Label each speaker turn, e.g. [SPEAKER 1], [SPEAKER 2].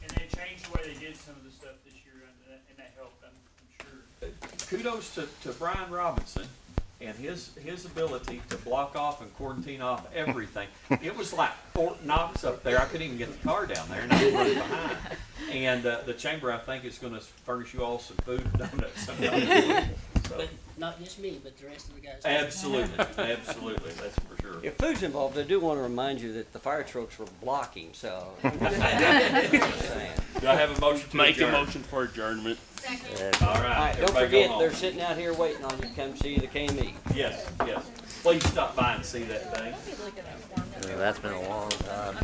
[SPEAKER 1] did some of the stuff this year and that, and that helped, I'm, I'm sure.
[SPEAKER 2] kudos to, to Brian Robinson and his, his ability to block off and quarantine off everything. It was like Fort Knox up there. I couldn't even get the car down there and I was running behind. And, uh, the chamber, I think, is gonna furnish you all some food and donuts. sometime. So,
[SPEAKER 3] But not just me, but the rest of the guys.
[SPEAKER 2] Absolutely, absolutely, that's for sure.
[SPEAKER 4] If food's involved, I do want to remind you that the fire trucks were blocking, so. All
[SPEAKER 2] Do I have a motion to
[SPEAKER 5] Make a
[SPEAKER 2] adjourn?
[SPEAKER 5] motion for adjournment.
[SPEAKER 2] All right,
[SPEAKER 4] right, don't
[SPEAKER 2] everybody go
[SPEAKER 4] forget, they're
[SPEAKER 2] home.
[SPEAKER 4] sitting out here waiting on you to come see the KME.
[SPEAKER 2] Yes, yes. Please stop by and see that thing.
[SPEAKER 6] that's been a long time.